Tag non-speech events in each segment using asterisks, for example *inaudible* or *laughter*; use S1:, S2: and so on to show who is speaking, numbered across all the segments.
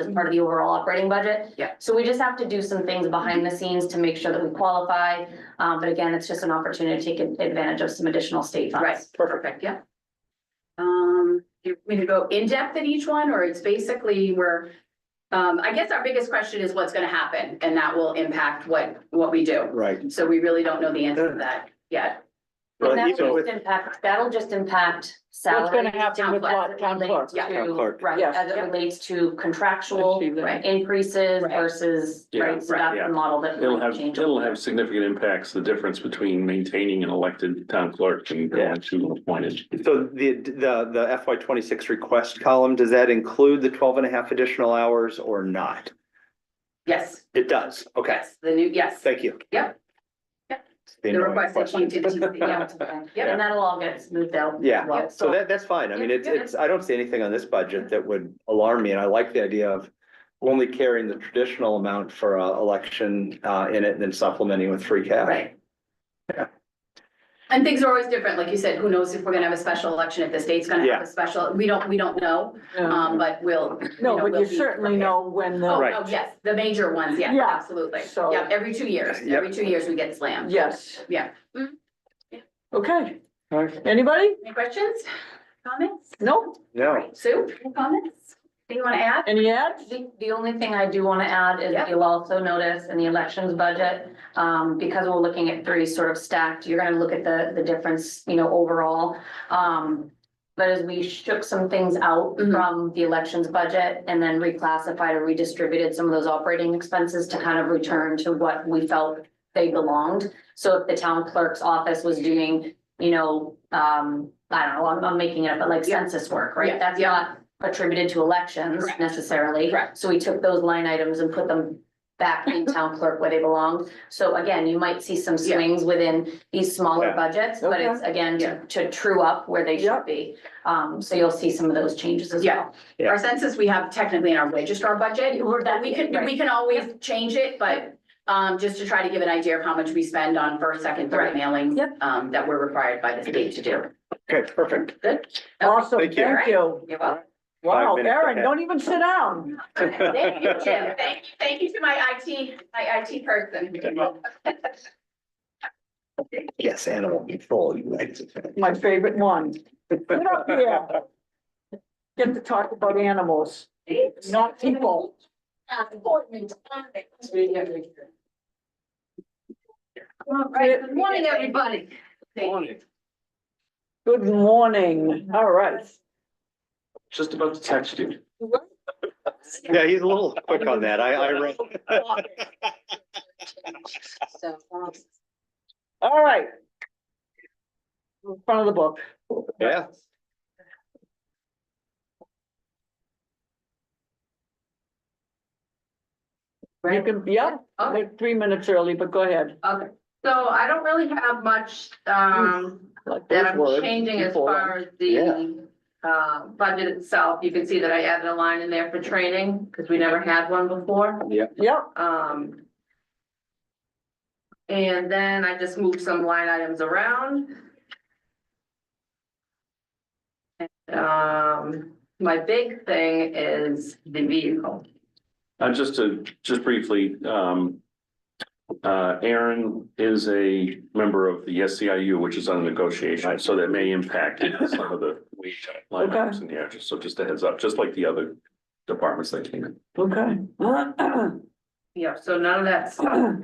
S1: as part of the overall operating budget.
S2: Yeah.
S1: So we just have to do some things behind the scenes to make sure that we qualify. Um, but again, it's just an opportunity to take advantage of some additional state funds.
S2: Right, perfect, yeah. Um, do you want to go in depth in each one, or it's basically where, um, I guess our biggest question is what's gonna happen, and that will impact what, what we do.
S3: Right.
S2: So we really don't know the answer to that yet.
S1: And
S3: But
S1: that'll
S3: even with
S1: just impact, that'll just impact salary.
S4: What's gonna happen with lot- town clerk?
S2: Yeah.
S3: Town clerk.
S1: Right,
S4: Yes.
S1: as it relates to contractual
S4: Achieve that.
S2: Right.
S1: increases
S2: Right.
S1: versus,
S5: Yeah,
S1: right, so
S2: right,
S1: that's
S5: yeah.
S1: the model that.
S5: It'll
S1: might
S5: have,
S1: change.
S5: it'll have significant impacts, the difference between maintaining an elected town clerk and
S3: Yeah.
S5: going to appointed.
S3: So the, the, the FY twenty-six request column, does that include the 12 and a half additional hours or not?
S2: Yes,
S3: It does, okay,
S2: yes, the new, yes,
S3: thank you.
S2: Yep. Yep.
S3: The
S2: the
S3: annoying
S2: request that
S3: question.
S2: came to the,
S4: *laughs*
S3: *laughs*
S2: yeah,
S1: And that'll all get smoothed out.
S3: Yeah,
S1: Well,
S3: So that, that's fine. I mean,
S1: Yeah,
S3: it's,
S1: yeah.
S3: it's, I don't see anything on this budget that would alarm me, and I like the idea of only carrying the traditional amount for a election, uh, in it and then supplementing with free cash.
S2: right.
S3: Yeah.
S2: And things are always different, like you said, who knows if we're gonna have a special election, if the state's gonna have
S3: Yeah.
S2: a special, we don't, we don't know,
S4: No,
S2: um, but we'll. you know,
S4: but
S2: we'll
S4: you
S2: be
S4: certainly
S2: prepared.
S4: know when
S2: Oh,
S4: the,
S3: Right.
S2: oh, yes, the major ones, yeah,
S4: Yeah.
S2: absolutely.
S4: So-
S2: Yeah, every two years,
S3: Yeah.
S2: every two years we get slammed.
S4: yes.
S2: Yeah.
S4: Okay,
S3: All right.
S4: anybody?
S2: Any questions, comments?
S4: No?
S3: No,
S2: Right, Sue, any comments? Anything you want to add?
S4: Any ads?
S1: The, the only thing I do want to add is
S2: Yeah.
S1: you'll also notice in the elections budget, um, because we're looking at three sort of stacked, you're gonna look at the, the difference, you know, overall. Um, but as we shook some things out
S2: Mhm.
S1: from the elections budget and then reclassified or redistributed some of those operating expenses to kind of return to what we felt they belonged. So if the town clerk's office was doing, you know, um, I don't know, I'm, I'm making it up, but like
S2: Yeah.
S1: census work,
S2: Yeah,
S1: right? That's
S2: yeah.
S1: not attributed to elections
S2: Correct.
S1: necessarily.
S2: Correct.
S1: So we took those line items and put them back
S2: *laughs*
S1: in town clerk where they belong. So again, you might see some
S2: Yeah.
S1: swings within these smaller
S3: Yeah.
S1: budgets, but it's again
S2: Yeah.
S1: to, to true up where they
S4: Yeah.
S1: should be. Um, so you'll see some of those changes as
S2: Yeah.
S1: well.
S3: Yeah.
S2: Our census, we have technically in our registrar budget,
S1: We're-
S2: that we can, we can always change it, but um, just to try to give an idea of how much we spend on first, second, third
S1: Right.
S2: mailings
S4: Yep.
S2: um, that we're required by the state to do.
S3: okay, perfect.
S2: Good?
S4: Awesome,
S3: Thank you.
S4: thank you.
S2: You're welcome.
S4: Wow,
S3: Five minutes
S4: Erin,
S3: ahead.
S4: don't even sit down.
S2: *laughs* Thank you, Jim. Thank you, thank you to my IT, my IT person.
S3: Yes, animal control, you like
S2: *laughs*
S3: it.
S4: My favorite one. Get up here. Get to talk about animals, not people.
S2: All right, good morning, everybody.
S4: Good morning, all right.
S5: Just about to text you.
S3: Yeah, he's a little quick on that. I, I wrote.
S4: All right. In front of the book.
S3: Yeah.
S4: You can, yeah,
S2: Okay.
S4: like three minutes early, but go ahead.
S2: Okay, so I don't really have much, um,
S4: Like
S2: that
S4: those words,
S2: I'm changing as
S4: people.
S2: far as the uh, budget itself. You can see that I added a line in there for training, because we never had one before,
S4: Yep,
S2: um. And then I just moved some line items around. And, Um, my big thing is the vehicle.
S5: Uh, just to, just briefly, um. Uh, Aaron is a member of the SCIU, which is under negotiation, so that may impact some of the wage line items in here, just, so just a heads up, just like the other departments that came in.
S4: okay.
S3: *clears throat*
S4: *clears throat*
S2: Yeah, so none of that stuff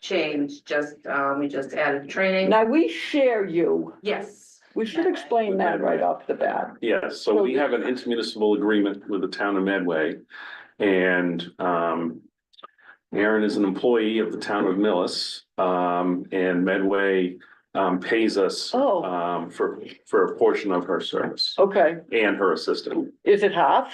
S2: changed, just, um, we just added training.
S4: Now, we share you.
S2: Yes.
S4: We should explain that right off the bat.
S5: Yes, so we have an intermunicipal agreement with the town of Medway. And um. Aaron is an employee of the town of Millis, um, and Medway um pays us.
S4: Oh.
S5: Um, for for a portion of her service
S4: Okay,
S5: and her assistant.
S4: is it half?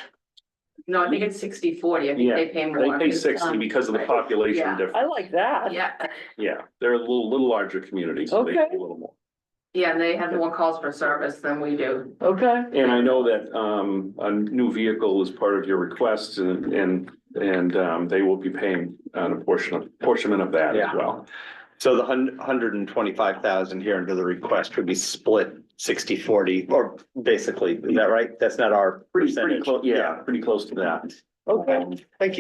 S2: No, I think it's sixty forty, I think
S5: Yeah,
S2: they pay more.
S5: They pay sixty because of the population
S2: Yeah.
S4: I
S5: difference.
S4: like that.
S2: Yeah,
S5: Yeah, they're a little little larger community, so they pay a
S4: Okay.
S5: little more.
S2: yeah, and they have more calls for service than we do.
S4: Okay,
S5: And I know that um a new vehicle is part of your request and and and um they will be paying uh, a portion of portion of that as
S3: Yeah.
S5: well.
S3: So the hun- hundred and twenty-five thousand here under the request would be split 60-40, or basically, is that right? That's not our
S5: Pretty pretty
S3: percentage.
S5: close, yeah, pretty close to that.
S3: Okay, thank you.